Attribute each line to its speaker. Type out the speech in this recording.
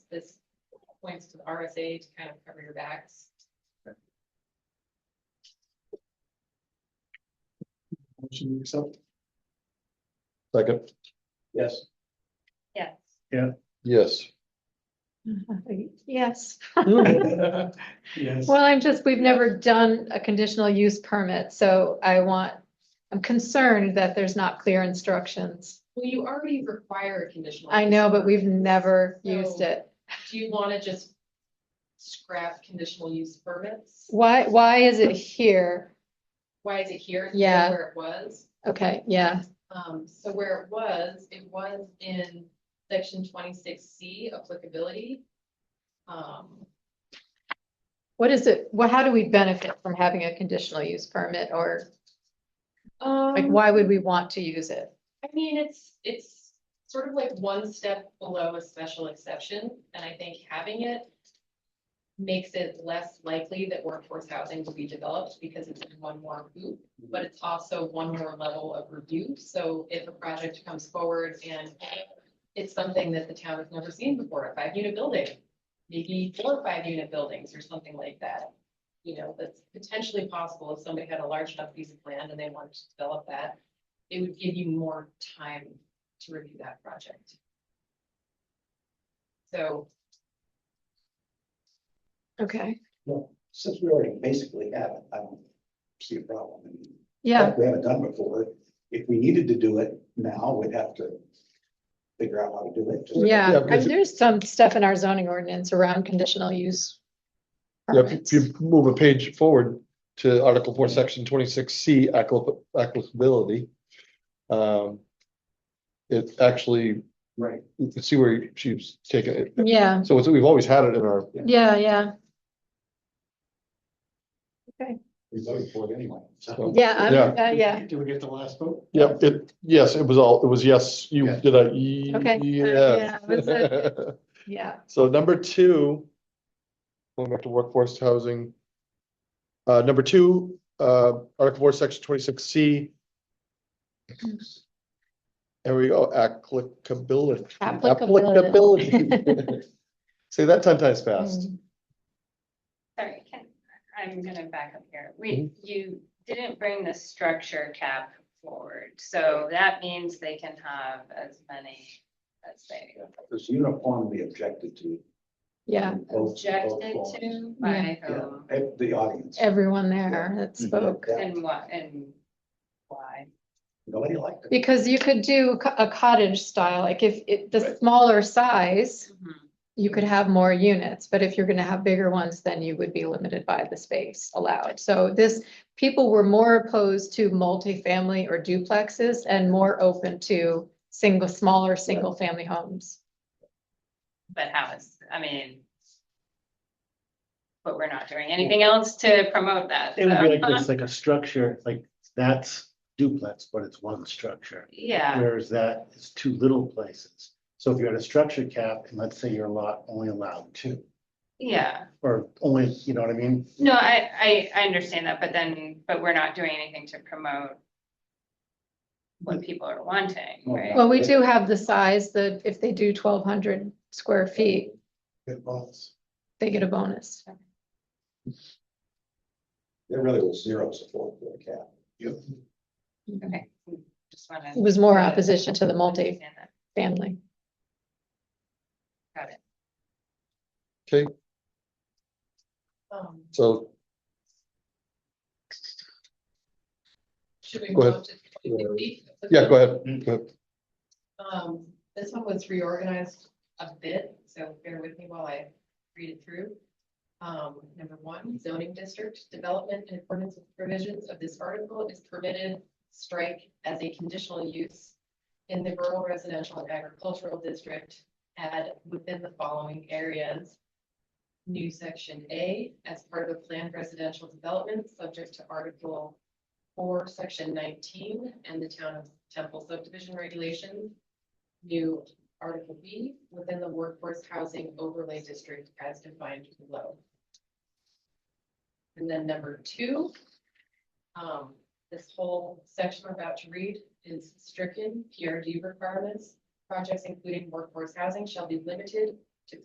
Speaker 1: this points to the RSA to kind of cover your backs.
Speaker 2: Motion to accept.
Speaker 3: Second,
Speaker 2: Yes.
Speaker 1: Yes.
Speaker 3: yes.
Speaker 4: Yes,
Speaker 2: Yes.
Speaker 4: well, I'm just, we've never done a conditional use permit, so I want, I'm concerned that there's not clear instructions.
Speaker 1: Well, you already require a conditional.
Speaker 4: I
Speaker 1: use.
Speaker 4: know, but we've never used
Speaker 1: So-
Speaker 4: it.
Speaker 1: Do you wanna just scrap conditional use permits?
Speaker 4: Why, why is it here?
Speaker 1: Why is it here? instead of
Speaker 4: Yeah.
Speaker 1: Where it was?
Speaker 4: Okay, yeah,
Speaker 1: Um, so where it was, it was in section twenty-six C applicability. Um,
Speaker 4: what is it, well, how do we benefit from having a conditional use permit, or like,
Speaker 1: um,
Speaker 4: why would we want to use it?
Speaker 1: I mean, it's, it's sort of like one step below a special exception, and I think having it makes it less likely that workforce housing will be developed because it's in one more hoop, but it's also one more level of review. So if a project comes forward and it's something that the town has never seen before, a five-unit building, maybe four or five-unit buildings or something like that. You know, that's potentially possible if somebody had a large enough piece of land and they wanted to develop that it would give you more time to review that project. So,
Speaker 4: Okay,
Speaker 5: Well, since we already basically have it, I don't see a problem. I mean,
Speaker 4: yeah,
Speaker 5: like We haven't done before. If we needed to do it now, we'd have to figure out how to do it. Just-
Speaker 3: Yeah,
Speaker 4: yeah, I
Speaker 3: because-
Speaker 4: mean, there's some stuff in our zoning ordinance around conditional use.
Speaker 3: Yeah, if
Speaker 4: permits.
Speaker 3: you move a page forward to Article Four, Section twenty-six C, applicability. Um. It actually,
Speaker 5: Right.
Speaker 3: you can see where she's taking it.
Speaker 4: Yeah.
Speaker 3: So it's, we've always had it in our,
Speaker 4: Yeah, yeah,
Speaker 5: We voted for it anyway. So
Speaker 4: yeah, I'm,
Speaker 3: Yeah.
Speaker 4: uh, yeah,
Speaker 2: Do we get the last vote?
Speaker 3: yeah, it, yes, it was all, it was yes, you
Speaker 5: Yeah.
Speaker 3: did a, ye-
Speaker 4: Okay.
Speaker 3: yes.
Speaker 4: Yeah, it was a- yeah,
Speaker 3: So number two. Going back to workforce housing. Uh, number two, uh, Article four, section twenty-six C. There we go, applicability.
Speaker 4: Applicability.
Speaker 3: Applicability. Say that ten times fast.
Speaker 4: Mm.
Speaker 6: Sorry, can, I'm gonna back up here. We,
Speaker 3: Mm-hmm.
Speaker 6: you didn't bring the structure cap forward, so that means they can have as many as they
Speaker 5: It's uniformly objected to.
Speaker 4: yeah,
Speaker 5: in
Speaker 3: Oh,
Speaker 5: both-
Speaker 6: objected
Speaker 5: both forms.
Speaker 6: to by
Speaker 5: Yeah,
Speaker 6: whom
Speaker 5: eh, The audience.
Speaker 4: everyone there that spoke.
Speaker 5: Mm-hmm. Yeah,
Speaker 6: and what and why.
Speaker 5: Nobody liked it.
Speaker 4: Because you could do co- a cottage style, like if it, the
Speaker 5: Right.
Speaker 4: smaller size,
Speaker 1: Mm-hmm.
Speaker 4: you could have more units, but if you're gonna have bigger ones, then you would be limited by the space allowed. So this, people were more opposed to multifamily or duplexes and more open to single, smaller, single-family homes.
Speaker 6: But how is, I mean. But we're not doing anything else to promote that.
Speaker 7: It would
Speaker 6: so-
Speaker 7: be like this, like a structure, like that's duplex, but it's one structure.
Speaker 6: Yeah,
Speaker 7: Whereas that is two little places. So if you're at a structure cap and let's say your lot only allowed two,
Speaker 6: yeah.
Speaker 7: or only, you know what I mean?
Speaker 6: No, I, I, I understand that, but then, but we're not doing anything to promote what people are wanting,
Speaker 7: Mm-hmm.
Speaker 6: right?
Speaker 4: Well, we do have the size, the, if they do twelve hundred square feet,
Speaker 5: It was.
Speaker 4: they get a bonus.
Speaker 5: There really was zero support for the cap.
Speaker 6: Okay, just wanna.
Speaker 4: It was more opposition to the multi-family.
Speaker 6: Understand that.
Speaker 3: Okay,
Speaker 1: um,
Speaker 3: so
Speaker 1: should we
Speaker 3: Go
Speaker 1: move
Speaker 3: ahead.
Speaker 1: on to 2060?
Speaker 3: yeah, go ahead. Go ahead.
Speaker 1: Um, this one was reorganized a bit, so bear with me while I read it through. Um, number one, zoning district development in accordance with provisions of this article is permitted, strike as a conditional use in the rural residential and agricultural district, add within the following areas. New section A, as part of a planned residential development, subject to article four, section nineteen, and the town of Temple subdivision regulations. New article B, within the workforce housing overlay district as defined below. And then number two. Um, this whole section we're about to read is stricken PRD requirements. Projects including workforce housing shall be limited